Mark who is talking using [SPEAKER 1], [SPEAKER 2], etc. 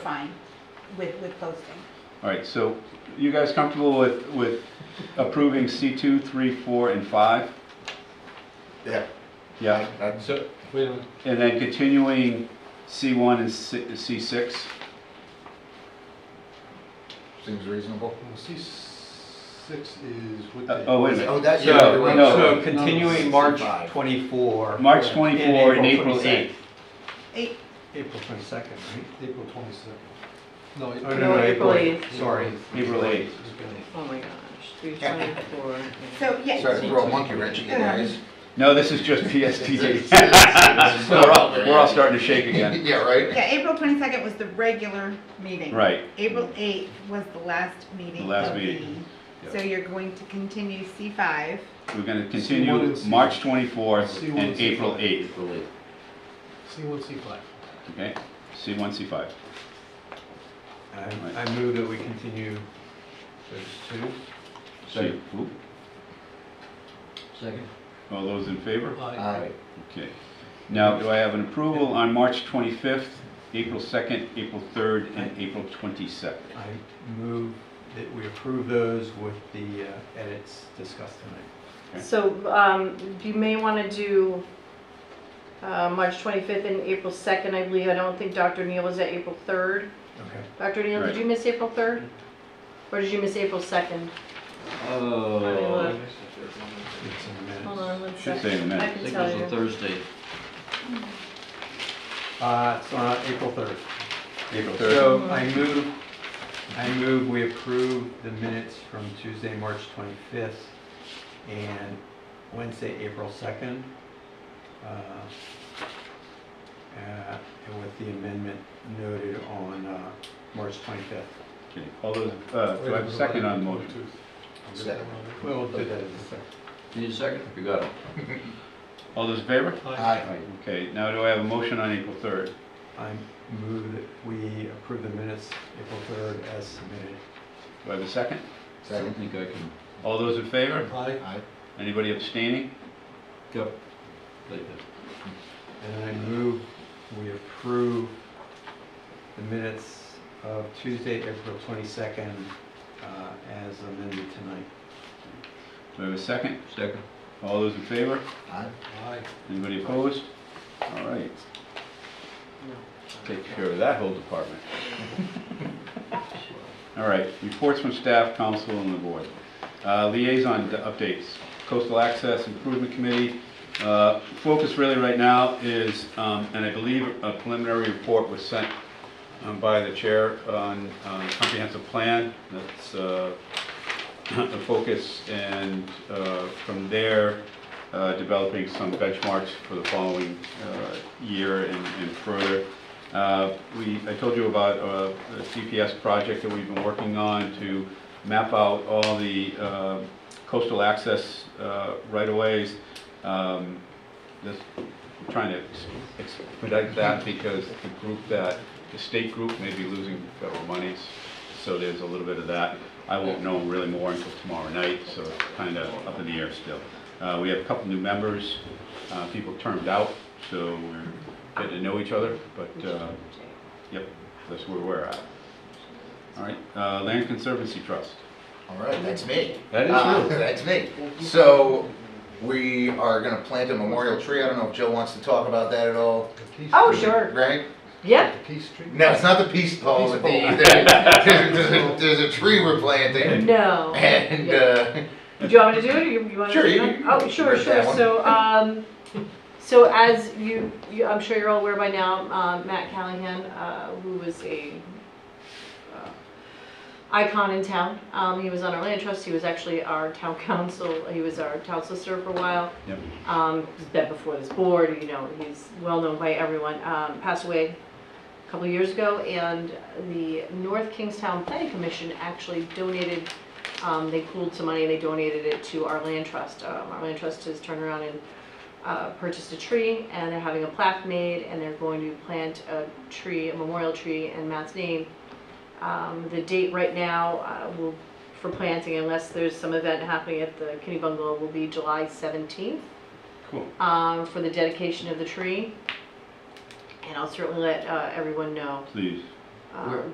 [SPEAKER 1] fine with, with posting.
[SPEAKER 2] All right, so you guys comfortable with, with approving C2, 3, 4, and 5?
[SPEAKER 3] Yeah.
[SPEAKER 2] Yeah,
[SPEAKER 3] That's
[SPEAKER 4] So, wait a minute,
[SPEAKER 2] and then continuing C1 and C- C6?
[SPEAKER 3] seems reasonable.
[SPEAKER 5] Well, C six is what
[SPEAKER 2] Uh,
[SPEAKER 5] they.
[SPEAKER 2] Oh, wait a
[SPEAKER 3] Oh,
[SPEAKER 2] minute.
[SPEAKER 3] that's.
[SPEAKER 4] so,
[SPEAKER 2] no.
[SPEAKER 4] so continuing March
[SPEAKER 3] Sixty-five.
[SPEAKER 4] twenty-four.
[SPEAKER 2] March 24 and April 8.
[SPEAKER 4] 22nd.
[SPEAKER 1] Eight,
[SPEAKER 4] April twenty-second, right?
[SPEAKER 5] April twenty-second. No. it-
[SPEAKER 4] Oh, no, no, April eighth, sorry.
[SPEAKER 2] April 8.
[SPEAKER 6] Oh my gosh, three twenty-four.
[SPEAKER 1] so, yes.
[SPEAKER 3] Sorry to throw a monkey wrench in you guys.
[SPEAKER 2] No, this is just PSTA. We're all, we're all
[SPEAKER 3] Yeah,
[SPEAKER 2] starting to shake again.
[SPEAKER 3] right?
[SPEAKER 1] Yeah, April twenty-second was the regular meeting.
[SPEAKER 2] Right,
[SPEAKER 1] April eighth was the last meeting.
[SPEAKER 2] The last
[SPEAKER 1] of
[SPEAKER 2] meeting.
[SPEAKER 1] the- So you're going to continue C five.
[SPEAKER 2] we're gonna
[SPEAKER 5] C1
[SPEAKER 2] continue
[SPEAKER 5] and C-
[SPEAKER 2] March 24th
[SPEAKER 5] C1
[SPEAKER 2] and
[SPEAKER 5] and C-
[SPEAKER 2] April 8th,
[SPEAKER 5] C one, C five.
[SPEAKER 2] okay? C1, C5.
[SPEAKER 4] I, I move that we continue those two.
[SPEAKER 2] C- oop.
[SPEAKER 4] Second.
[SPEAKER 2] All those in favor?
[SPEAKER 5] Uh,
[SPEAKER 3] Aye.
[SPEAKER 2] Okay. Now, do I have an approval on March 25th, April 2nd, April 3rd, and April 22nd?
[SPEAKER 4] I move that we approve those with the uh, edits discussed tonight.
[SPEAKER 6] So, um, you may wanna do, uh, March twenty-fifth and April second, I believe, I don't think Dr. Neal was at April third.
[SPEAKER 4] Okay.
[SPEAKER 6] Dr. Neal,
[SPEAKER 2] Right.
[SPEAKER 6] did you miss April third? Or did you miss April second?
[SPEAKER 7] Oh.
[SPEAKER 4] It's in the
[SPEAKER 6] Hold
[SPEAKER 4] minutes.
[SPEAKER 6] on one
[SPEAKER 2] Should
[SPEAKER 6] second.
[SPEAKER 2] say in a minute.
[SPEAKER 6] I
[SPEAKER 7] I
[SPEAKER 6] can
[SPEAKER 7] think it was
[SPEAKER 6] tell
[SPEAKER 7] a
[SPEAKER 6] you.
[SPEAKER 7] Thursday.
[SPEAKER 4] Uh, it's on April third.
[SPEAKER 2] April 3rd?
[SPEAKER 4] So I move, I move we approve the minutes from Tuesday, March 25th and Wednesday, April 2nd. uh, uh, And with the amendment noted on uh, March 25th.
[SPEAKER 2] Okay. All those, uh, do I have a second on the motion?
[SPEAKER 3] Second.
[SPEAKER 4] We'll do that in a second.
[SPEAKER 7] Need a second? You got it.
[SPEAKER 2] All those in favor?
[SPEAKER 3] Aye.
[SPEAKER 2] Okay, now do I have a motion on April 3rd?
[SPEAKER 4] I move that we approve the minutes, April 3rd, as submitted.
[SPEAKER 2] Do I have a second?
[SPEAKER 7] I don't
[SPEAKER 3] Second.
[SPEAKER 7] think I can.
[SPEAKER 2] All those in favor?
[SPEAKER 3] Aye.
[SPEAKER 2] Anybody abstaining?
[SPEAKER 7] Yep. Like that.
[SPEAKER 4] And I move we approve the minutes of Tuesday, April 22nd, uh, as amended tonight.
[SPEAKER 2] Do I have a second?
[SPEAKER 7] Second.
[SPEAKER 2] All those in favor?
[SPEAKER 3] Aye.
[SPEAKER 2] Anybody opposed? All right. Take care of that whole department. All right, reports from staff, council, and the board. Uh, Liaison updates, Coastal Access Improvement Committee. Uh, Focus really right now is, um, and I believe a preliminary report was sent um, by the chair on on comprehensive plan. That's uh, the focus, and uh, from there, uh, developing some benchmarks for the following uh, year and and further. Uh, We, I told you about uh, a CPS project that we've been working on to map out all the uh, coastal access uh, right-of-ways. Um, This, we're trying to ex- expedite that because the group that, the state group may be losing federal monies, so there's a little bit of that. I won't know really more until tomorrow night, so it's kind of up in the air still. Uh, We have a couple new members, uh, people termed out, so we're getting to know each other, but, uh, yep, that's where we're at. All right, uh, Land Conservancy Trust.
[SPEAKER 3] All right, that's me.
[SPEAKER 2] That
[SPEAKER 3] Uh,
[SPEAKER 2] is you.
[SPEAKER 3] That's me. So we are gonna plant a memorial tree. I don't know if Joe wants to talk about that at all,
[SPEAKER 6] Oh, sure,
[SPEAKER 3] right?
[SPEAKER 6] yeah,
[SPEAKER 5] The Key Street.
[SPEAKER 3] No, it's not the peace pole.
[SPEAKER 5] Peace
[SPEAKER 3] the-
[SPEAKER 5] pole.
[SPEAKER 3] the- There's a- there's a tree we're planting
[SPEAKER 6] no.
[SPEAKER 3] and, uh,
[SPEAKER 6] Do you want me to do it, or you you want to?
[SPEAKER 3] Sure,
[SPEAKER 6] do
[SPEAKER 3] you-
[SPEAKER 6] it?
[SPEAKER 3] you
[SPEAKER 6] Oh,
[SPEAKER 3] can
[SPEAKER 6] sure,
[SPEAKER 3] break
[SPEAKER 6] sure,
[SPEAKER 3] that one.
[SPEAKER 6] so, um, so as you, you, I'm sure you're all aware by now, um, Matt Callahan, uh, who was a uh, icon in town, um, he was on our land trust, he was actually our town council, he was our town solicitor for a while.
[SPEAKER 2] Yep.
[SPEAKER 6] Um, he's been before this board, you know, he's well-known by everyone, um, passed away a couple of years ago, and the North Kingstown Planning Commission actually donated um, they pooled some money and they donated it to our land trust. Um, our land trust has turned around and uh, purchased a tree and they're having a plaque made and they're going to plant a tree, a memorial tree in Matt's name. Um, the date right now uh, will, for planting, unless there's some event happening at the Kinney Bungalow, will be July 17th
[SPEAKER 2] Cool.
[SPEAKER 6] um, for the dedication of the tree. And I'll certainly let uh, everyone know
[SPEAKER 2] Please.
[SPEAKER 8] um,
[SPEAKER 6] Where-